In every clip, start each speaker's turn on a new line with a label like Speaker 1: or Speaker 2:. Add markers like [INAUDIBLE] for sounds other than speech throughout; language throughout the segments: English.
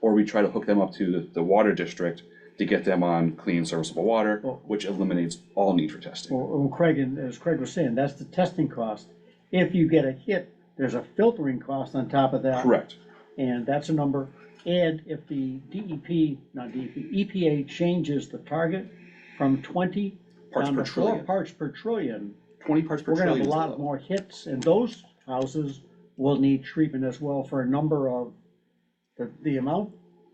Speaker 1: or we try to hook them up to the, the water district to get them on clean serviceable water, which eliminates all need for testing.
Speaker 2: Well, well, Craig, and as Craig was saying, that's the testing cost. If you get a hit, there's a filtering cost on top of that.
Speaker 1: Correct,
Speaker 2: And that's a number. And if the DEP, not E DEP, EPA changes the target from twenty
Speaker 1: Parts
Speaker 2: down
Speaker 1: per
Speaker 2: to four
Speaker 1: trillion.
Speaker 2: parts per trillion,
Speaker 1: twenty parts per
Speaker 2: we're gonna
Speaker 1: trillion. is
Speaker 2: have a
Speaker 1: the
Speaker 2: lot
Speaker 1: level.
Speaker 2: more hits, and those houses will need treatment as well for a number of, the, the amount,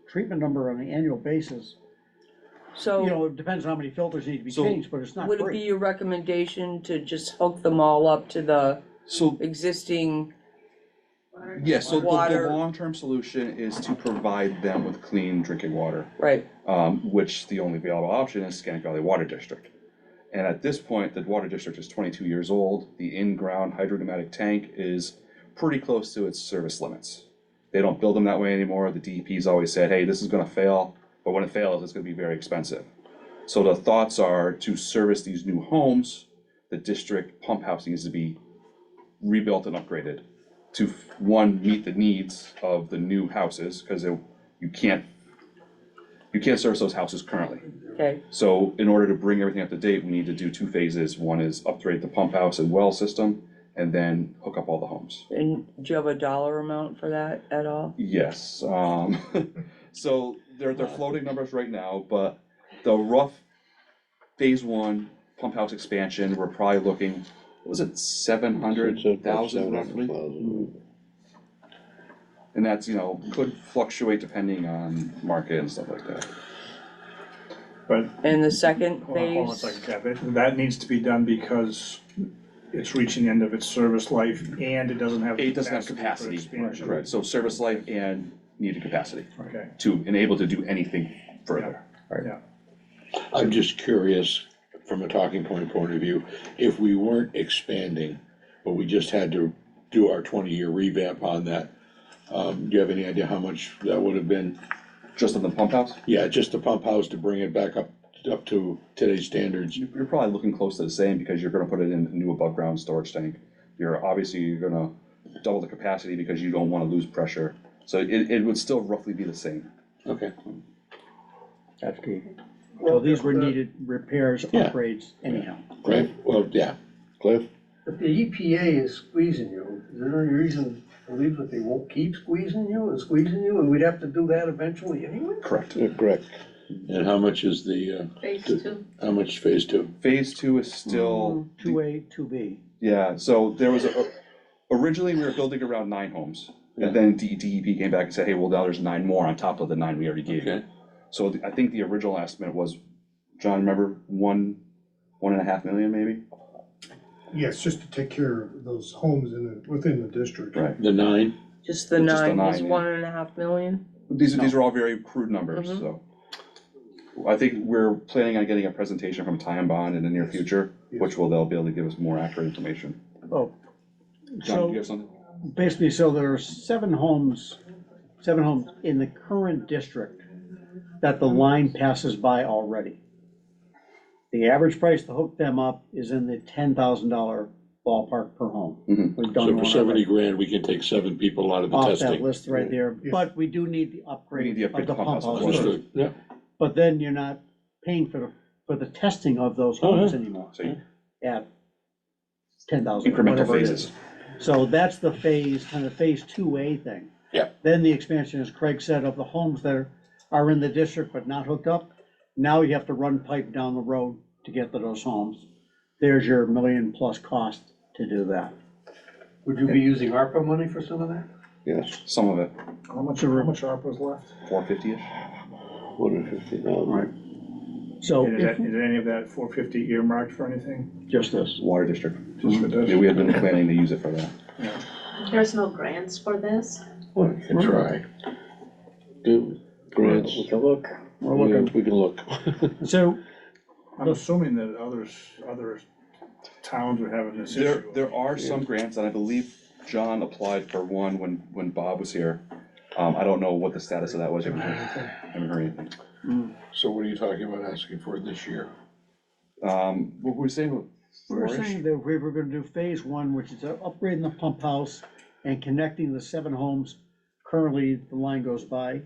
Speaker 2: treatment number on an annual basis. You
Speaker 3: So
Speaker 2: know, it depends on how many filters need to be
Speaker 1: So-
Speaker 2: changed, but it's not
Speaker 3: would it be
Speaker 2: free.
Speaker 3: your recommendation to just hook them all up to the
Speaker 1: So
Speaker 3: existing,
Speaker 1: Yes, so the, the
Speaker 3: Water.
Speaker 1: long-term solution is to provide them with clean drinking water,
Speaker 3: right,
Speaker 1: um, which the only available option is Scannick Valley Water District. And at this point, the water district is twenty-two years old, the in-ground hydrodynamic tank is pretty close to its service limits. They don't build them that way anymore, the DEP's always said, hey, this is gonna fail, but when it fails, it's gonna be very expensive. So the thoughts are to service these new homes, the district pump house needs to be rebuilt and upgraded to, one, meet the needs of the new houses, because you can't, you can't service those houses currently.
Speaker 3: okay,
Speaker 1: So in order to bring everything up to date, we need to do two phases. One is upgrade the pump house and well system, and then hook up all the homes.
Speaker 3: and do you have a dollar amount for that at all?
Speaker 1: Yes, um, [LAUGHS] so they're, they're floating numbers right now, but the rough phase one pump house expansion, we're probably looking, was it seven hundred thousand roughly? And that's, you know, could fluctuate depending on market and stuff like that.
Speaker 4: But,
Speaker 3: And the second
Speaker 4: hold on- hold on a
Speaker 3: phase,
Speaker 4: second, Cap, It- that needs to be done because it's reaching the end of its service life and it doesn't have.
Speaker 1: It doesn't have
Speaker 4: for
Speaker 1: capacity,
Speaker 4: expansion.
Speaker 1: correct, so service life and needed capacity
Speaker 4: Okay,
Speaker 1: to enable to do anything further.
Speaker 4: yeah,
Speaker 5: I'm just curious, from a talking point point of view, if we weren't expanding, but we just had to do our twenty-year revamp on that, um, do you have any idea how much that would have been?
Speaker 1: Just on the pump house,
Speaker 5: Yeah, just the pump house to bring it back up, up to today's standards.
Speaker 1: you- you're probably looking close to the same because you're gonna put it in a new above ground storage tank. You're, obviously, you're gonna double the capacity because you don't wanna lose pressure. So it, it would still roughly be the same.
Speaker 5: Okay,
Speaker 2: That's key. So these were needed repairs,
Speaker 5: Yeah.
Speaker 2: upgrades anyhow.
Speaker 5: Cliff, well, yeah, Cliff,
Speaker 6: If the EPA is squeezing you, is there any reason to believe that they won't keep squeezing you and squeezing you, and we'd have to do that eventually anyway?
Speaker 1: Correct.
Speaker 5: Yeah, correct. And how much is the,
Speaker 7: Phase
Speaker 5: Good.
Speaker 7: two.
Speaker 5: uh, how much phase two?
Speaker 1: Phase two is still,
Speaker 2: Two A, two B.
Speaker 1: yeah, so there was, a- originally, we were building around nine homes. And then D- DEP came back and said, hey, well, now there's nine more on top of the nine we already gave you.
Speaker 5: Okay,
Speaker 1: So the- I think the original estimate was, John, remember, one, one and a half million maybe?
Speaker 8: Yes, just to take care of those homes in the, within the district.
Speaker 1: Right.
Speaker 5: the nine,
Speaker 3: just the
Speaker 1: Just the
Speaker 3: nine, is
Speaker 1: nine, yeah.
Speaker 3: one and a half million?
Speaker 1: These are, these are all very crude numbers,
Speaker 2: Mm-hmm.
Speaker 3: Mhm.
Speaker 1: so. I think we're planning on getting a presentation from Time Bond in the near future, which will, they'll be able to give us more accurate information.
Speaker 2: Oh,
Speaker 1: John, do you
Speaker 2: so
Speaker 1: have something?
Speaker 2: basically, so there are seven homes, seven homes in the current district that the line passes by already. The average price to hook them up is in the ten thousand dollar ballpark per home.
Speaker 1: Mhm.
Speaker 2: We've done
Speaker 5: so for
Speaker 2: one
Speaker 5: seventy
Speaker 2: already.
Speaker 5: grand, we can take seven people out of the
Speaker 2: Off that
Speaker 5: testing.
Speaker 2: list right there,
Speaker 8: Yes.
Speaker 2: but we do need
Speaker 1: We need
Speaker 2: the upgrade
Speaker 1: the
Speaker 2: of
Speaker 1: upgrade
Speaker 2: the
Speaker 1: pump
Speaker 2: pump
Speaker 1: house as
Speaker 2: house.
Speaker 1: well.
Speaker 2: first.
Speaker 5: Understood, yeah,
Speaker 2: But then you're not paying for the, for the testing of those
Speaker 5: Oh, yeah.
Speaker 2: homes anymore
Speaker 1: So you-
Speaker 2: at ten thousand,
Speaker 1: incremental
Speaker 2: whatever it is.
Speaker 1: phases.
Speaker 2: So that's the phase, kind of phase two A thing.
Speaker 5: Yeah.
Speaker 2: Then the expansion, as Craig said, of the homes that are, are in the district but not hooked up. Now you have to run pipe down the road to get to those homes. There's your million plus cost to do that.
Speaker 6: Would you be using ARPA money for some of that?
Speaker 9: Yes,
Speaker 1: Some of it,
Speaker 4: how much, how much ARPA's left?
Speaker 1: four fifty-ish.
Speaker 9: one hundred fifty thousand.
Speaker 1: Oh,
Speaker 2: So
Speaker 4: And Is that-
Speaker 2: if,
Speaker 4: is any of that four fifty earmarked for anything?
Speaker 2: just this,
Speaker 1: Water District.
Speaker 4: Just for
Speaker 1: Mm-hmm. Yeah, we
Speaker 4: this?
Speaker 1: had been planning to use it for that.
Speaker 7: There's no grants for this?
Speaker 9: We can
Speaker 5: try,
Speaker 9: do grants.
Speaker 5: We
Speaker 9: can look.
Speaker 2: we're looking.
Speaker 9: We can look.
Speaker 2: So
Speaker 4: I'm assuming that others, other towns are having this
Speaker 1: There,
Speaker 4: issue.
Speaker 1: there are some grants, and I believe John applied for one when, when Bob was here. Um, I don't know what the status of that was, I haven't heard anything. I haven't heard anything.
Speaker 5: [LAUGHS] so what are you talking about asking for this year?
Speaker 1: Um, what were we saying?
Speaker 2: we were
Speaker 1: Four-ish?
Speaker 2: saying that we were gonna do phase one, which is upgrading the pump house and connecting the seven homes. Currently, the line goes by.